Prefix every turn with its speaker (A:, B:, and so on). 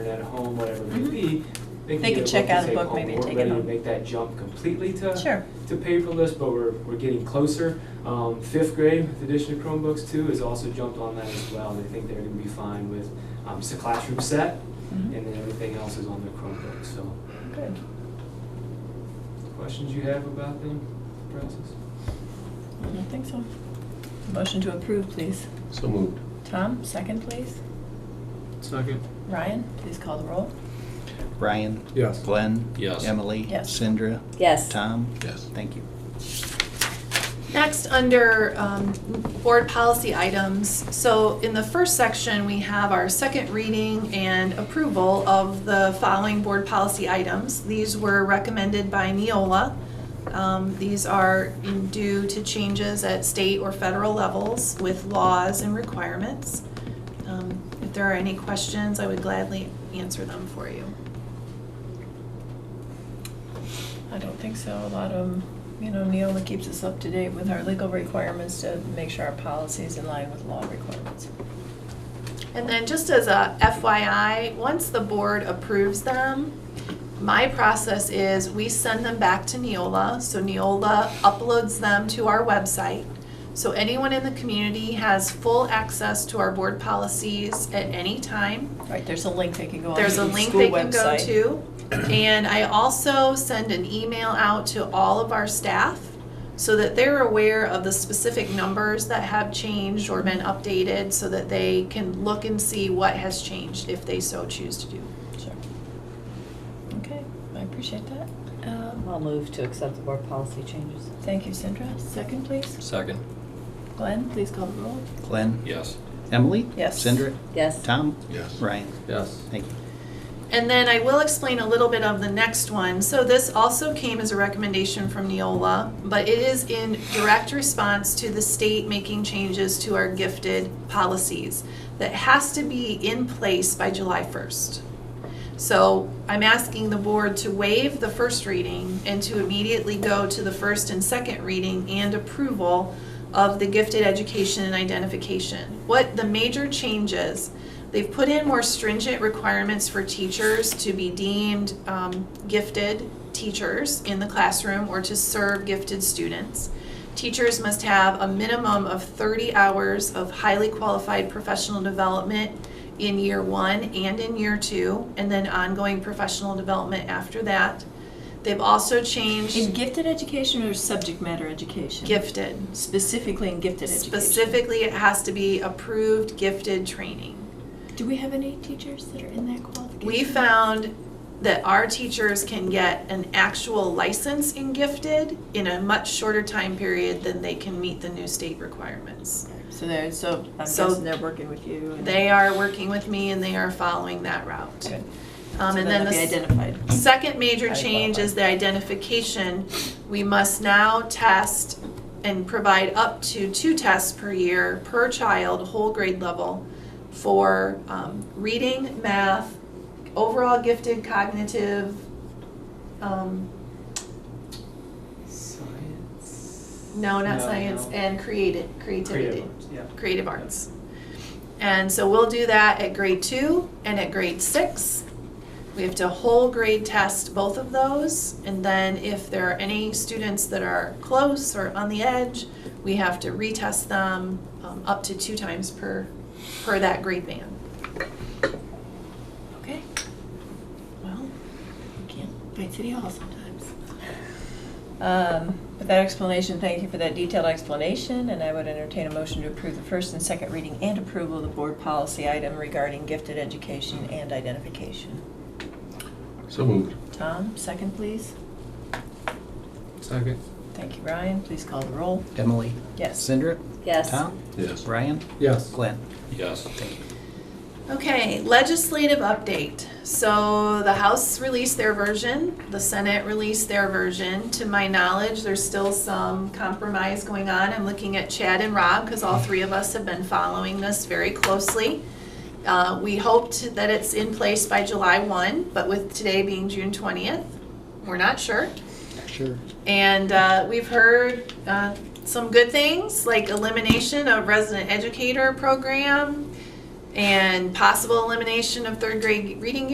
A: at home, whatever it may
B: Mhm.
A: be, they can
B: They
A: get
B: could check
A: and
B: out a
A: say,
B: book
A: "Oh,
B: maybe and
A: we're
B: take it
A: ready to
B: home."
A: Make that jump completely to
B: Sure.
A: to paperless, but we're we're getting closer. Um, fifth grade, with the addition of Chromebooks too, has also jumped on that as well. They think they're going to be fine with um, it's a classroom set,
B: Mhm.
A: and then everything else is on their Chromebook. So,
B: Good.
A: questions you have about them, process?
B: I don't think so. Motion to approve, please.
C: So moved.
B: Tom, second, please.
D: Second.
B: Ryan, please call the roll.
E: Brian?
D: Yes.
E: Glenn?
C: Yes.
E: Emily?
B: Yes.
E: Sandra?
F: Yes.
E: Tom?
C: Yes.
E: Thank you.
G: Next, under um, board policy items, so in the first section, we have our second reading and approval of the following board policy items. These were recommended by Neola. Um, These are due to changes at state or federal levels with laws and requirements. Um, If there are any questions, I would gladly answer them for you.
B: I don't think so. A lot of, 'em- you know, Neola keeps us up to date with our legal requirements to make sure our policy is in line with law requirements.
G: And then just as a FYI, once the board approves them, my process is we send them back to Neola. So Neola uploads them to our website. So anyone in the community has full access to our board policies at any time.
B: Right, there's a link they can go on to the
G: There's a
B: school
G: link
B: website.
G: they can go to. And I also send an email out to all of our staff so that they're aware of the specific numbers that have changed or been updated so that they can look and see what has changed if they so choose to do.
B: Sure. Okay, I appreciate that. Um,
F: I'll move to accept the board policy changes.
B: Thank you, Sandra. Second, please.
C: Second.
B: Glenn, please call the roll.
E: Glenn?
C: Yes.
E: Emily?
B: Yes.
E: Sandra?
F: Yes.
E: Tom?
C: Yes.
E: Ryan?
D: Yes.
E: Thank you.
G: And then I will explain a little bit of the next one. So this also came as a recommendation from Neola, but it is in direct response to the state making changes to our gifted policies that has to be in place by July 1st. So I'm asking the board to waive the first reading and to immediately go to the first and second reading and approval of the gifted education and identification. What the major changes, they've put in more stringent requirements for teachers to be deemed um, gifted teachers in the classroom or to serve gifted students. Teachers must have a minimum of 30 hours of highly qualified professional development in year one and in year two, and then ongoing professional development after that. They've also
B: In
G: changed
B: gifted education or subject matter education?
G: gifted.
B: Specifically in gifted education?
G: Specifically, it has to be approved gifted training.
B: Do we have any teachers that are in that qualification?
G: We found that our teachers can get an actual license in gifted in a much shorter time period than they can meet the new state requirements.
B: So they're, so I'm
G: So-
B: guessing they're working with you. and-
G: They are working with me and they are following that route.
B: Good.
G: Um,
B: So
G: and
B: then
G: then
B: they'll
G: the
B: be
G: s-
B: identified.
G: Second major
B: How to
G: change is the
B: qualify.
G: identification. We must now test and provide up to two tests per year per child, whole grade level, for um, reading, math, overall gifted cognitive, um,
A: Science?
G: no, not science,
A: no.
G: and creative,
A: creative.
G: creativity,
A: arts, Yeah.
G: creative arts. And so we'll do that at grade two and at grade six. We have to whole grade test both of those, and then if there are any students that are close or on the edge, we have to retest them um, up to two times per, per that grade band.
B: Okay. Well, you can't fight City Hall sometimes. Um, With that explanation, thank you for that detailed explanation, and I would entertain a motion to approve the first and second reading and approval of the board policy item regarding gifted education and identification.
C: So moved.
B: Tom, second, please.
D: Second.
B: Thank you, Ryan. Please call the roll.
E: Emily?
B: Yes.
E: Sandra?
F: Yes.
E: Tom?
C: Yes.
E: Brian?
D: Yes.
E: Glenn?
C: Yes.
G: Okay, legislative update. So the House released their version, the Senate released their version. To my knowledge, there's still some compromise going on. I'm looking at Chad and Rob because all three of us have been following this very closely. Uh, We hoped that it's in place by July 1, but with today being June 20th, we're not sure.
E: Sure.
G: And uh, we've heard uh, some good things like elimination of resident educator program and possible elimination of third grade reading